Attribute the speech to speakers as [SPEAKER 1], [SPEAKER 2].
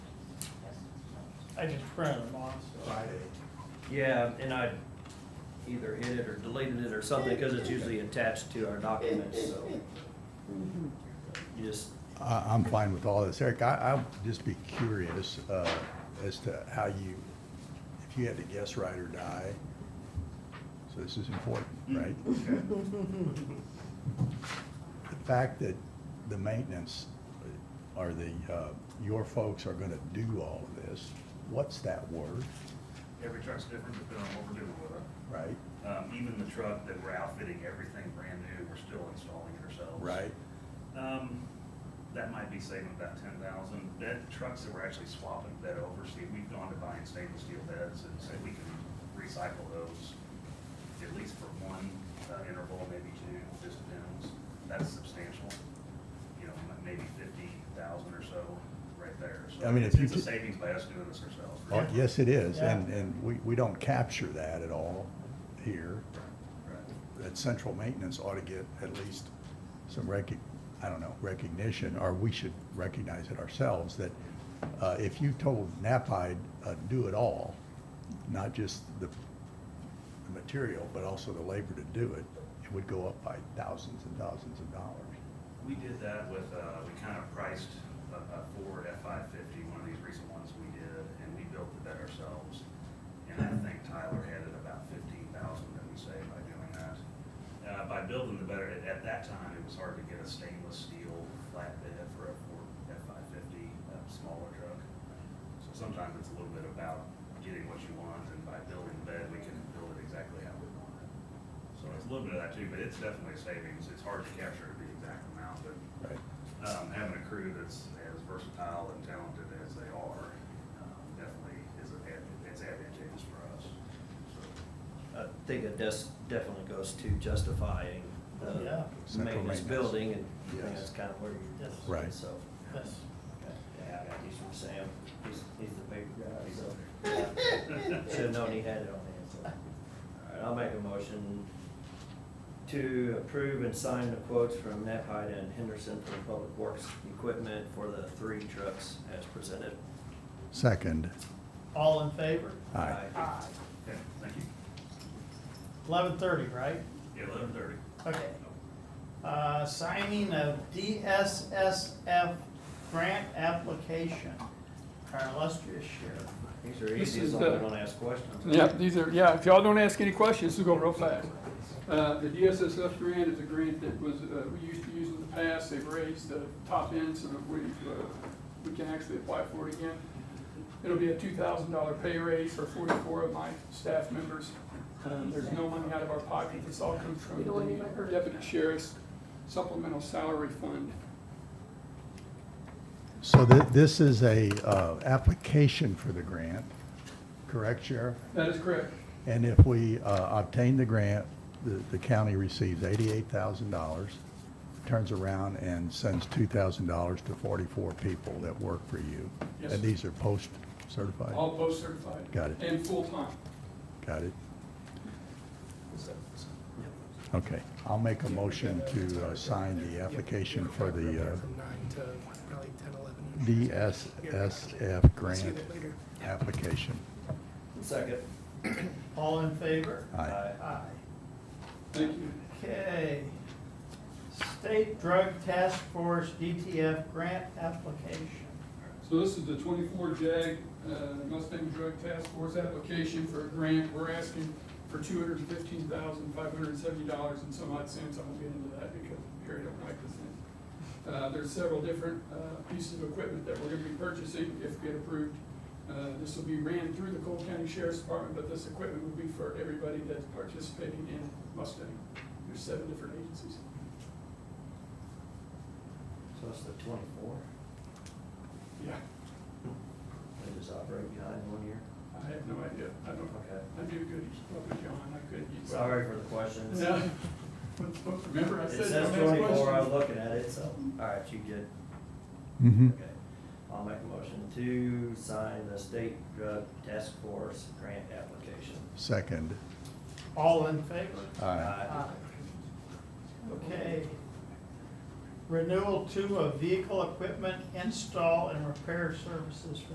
[SPEAKER 1] I just printed them off. so-
[SPEAKER 2] Friday.
[SPEAKER 3] Yeah, and I either hid it or deleted it or something, cause it's usually attached to our documents, so. You just,
[SPEAKER 4] I, I'm fine with all this. Eric, I, I'd just be curious, uh, as to how you, if you had to guess right or die. So this is important, right? The fact that the maintenance, or the, uh, your folks are gonna do all of this, what's that word,
[SPEAKER 2] Every truck's different depending on what we're doing with it.
[SPEAKER 4] right?
[SPEAKER 2] Um, even the truck that we're outfitting, everything brand new, we're still installing it ourselves.
[SPEAKER 4] Right?
[SPEAKER 2] Um, that might be saving about ten thousand. That trucks that we're actually swapping that over, see, we've gone to buying stainless steel beds and said we can recycle those at least for one uh, interval, maybe two, just depends. That's substantial, you know, m- maybe fifty thousand or so right there. So
[SPEAKER 4] I mean, if
[SPEAKER 2] it's-
[SPEAKER 4] you
[SPEAKER 2] It's a
[SPEAKER 4] t-
[SPEAKER 2] savings by us doing this ourselves.
[SPEAKER 4] Oh, Yes, it is, and,
[SPEAKER 1] Yeah.
[SPEAKER 4] and we, we don't capture that at all here.
[SPEAKER 2] Right.
[SPEAKER 4] that central maintenance ought to get at least some recog, I don't know, recognition, or we should recognize it ourselves, that uh, if you told NAPID, uh, do it all, not just the, the material, but also the labor to do it, it would go up by thousands and thousands of dollars.
[SPEAKER 2] We did that with, uh, we kind of priced a, a Ford F-550, one of these recent ones we did, and we built the bed ourselves. And I think Tyler had it about fifteen thousand that we saved by doing that. Uh, by building the bed, at, at that time, it was hard to get a stainless steel flatbed for a Ford F-550, a smaller truck. So sometimes it's a little bit about getting what you want, and by building the bed, we can build it exactly how we want it. So it's a little bit of that too, but it's definitely a savings. It's hard to capture the exact amount, but
[SPEAKER 4] Right.
[SPEAKER 2] um, having a crew that's as versatile and talented as they are, um, definitely is an ad- it's advantageous for us. So,
[SPEAKER 3] I think it des- definitely goes to justifying
[SPEAKER 1] Yeah.
[SPEAKER 3] the
[SPEAKER 4] Central
[SPEAKER 3] maintenance
[SPEAKER 4] maintenance.
[SPEAKER 3] building, and I think
[SPEAKER 4] Yes.
[SPEAKER 3] that's kind of where you.
[SPEAKER 1] Yes.
[SPEAKER 4] Right.
[SPEAKER 3] So,
[SPEAKER 1] Yes.
[SPEAKER 3] yeah, I got these from Sam, he's, he's the paper guy, so. Should've known he had it on hand, so. All right, I'll make a motion to approve and sign the quotes from Nephi and Henderson for Public Works Equipment for the three trucks as presented.
[SPEAKER 4] Second,
[SPEAKER 1] All in favor?
[SPEAKER 4] aye.
[SPEAKER 1] Aye.
[SPEAKER 2] Okay, thank you.
[SPEAKER 1] Eleven thirty, right?
[SPEAKER 2] Yeah, eleven thirty.
[SPEAKER 1] Okay.
[SPEAKER 2] Oh.
[SPEAKER 1] Uh, signing of DSSF grant application, our illustrious sheriff.
[SPEAKER 3] These are
[SPEAKER 5] This
[SPEAKER 3] easy, as
[SPEAKER 5] is
[SPEAKER 3] long as
[SPEAKER 5] the-
[SPEAKER 3] I don't ask questions.
[SPEAKER 5] Yeah, these are, yeah, if y'all don't ask any questions, this is going real fast. Uh, The DSSF grant is a grant that was, uh, we used to use in the past, they've raised the top end so that we, uh, we can actually apply for it again. It'll be a two thousand dollar pay raise for forty-four of my staff members. Um, There's no money out of our pocket, this all comes from the deputy sheriff's supplemental salary fund.
[SPEAKER 4] So thi- this is a, uh, application for the grant, correct, Sheriff?
[SPEAKER 5] That is correct.
[SPEAKER 4] And if we uh, obtain the grant, the, the county receives eighty-eight thousand dollars, turns around and sends two thousand dollars to forty-four people that work for you.
[SPEAKER 5] Yes.
[SPEAKER 4] And these are post-certified?
[SPEAKER 5] All post-certified.
[SPEAKER 4] Got it.
[SPEAKER 5] And full-time.
[SPEAKER 4] Got it? Okay, I'll make a motion to uh, sign the application for the uh,
[SPEAKER 6] From nine to probably ten, eleven.
[SPEAKER 4] DSSF
[SPEAKER 6] See you
[SPEAKER 4] grant
[SPEAKER 6] later.
[SPEAKER 4] application.
[SPEAKER 3] Second.
[SPEAKER 1] All in favor?
[SPEAKER 4] Aye.
[SPEAKER 1] Aye.
[SPEAKER 5] Thank you.
[SPEAKER 1] Okay. State Drug Task Force DTF grant application.
[SPEAKER 5] So this is the twenty-four JAG uh, Mustang Drug Task Force application for a grant. We're asking for two hundred and fifteen thousand, five hundred and seventy dollars and some odd cents. I won't get into that because Harry don't like this thing. Uh, There's several different uh, pieces of equipment that we're gonna be purchasing if we get approved. Uh, This will be ran through the Cole County Sheriff's Department, but this equipment will be for everybody that's participating in Mustang. There's seven different agencies.
[SPEAKER 3] So it's the twenty-four,
[SPEAKER 5] Yeah,
[SPEAKER 3] they just operate behind one year?
[SPEAKER 5] I have no idea. I don't,
[SPEAKER 3] Okay.
[SPEAKER 5] I do good, probably John, I could. you-
[SPEAKER 3] Sorry for the questions.
[SPEAKER 5] Yeah.
[SPEAKER 3] It
[SPEAKER 5] Remember I said.
[SPEAKER 3] says
[SPEAKER 5] don't ask
[SPEAKER 3] twenty-four, I was
[SPEAKER 5] questions.
[SPEAKER 3] looking at it, so, all right, you good.
[SPEAKER 4] Mm-hmm.
[SPEAKER 3] Okay. I'll make a motion to sign the state drug task force grant application.
[SPEAKER 4] Second,
[SPEAKER 1] All in favor?
[SPEAKER 4] aye.
[SPEAKER 1] Okay. Renewal two of vehicle equipment install and repair services for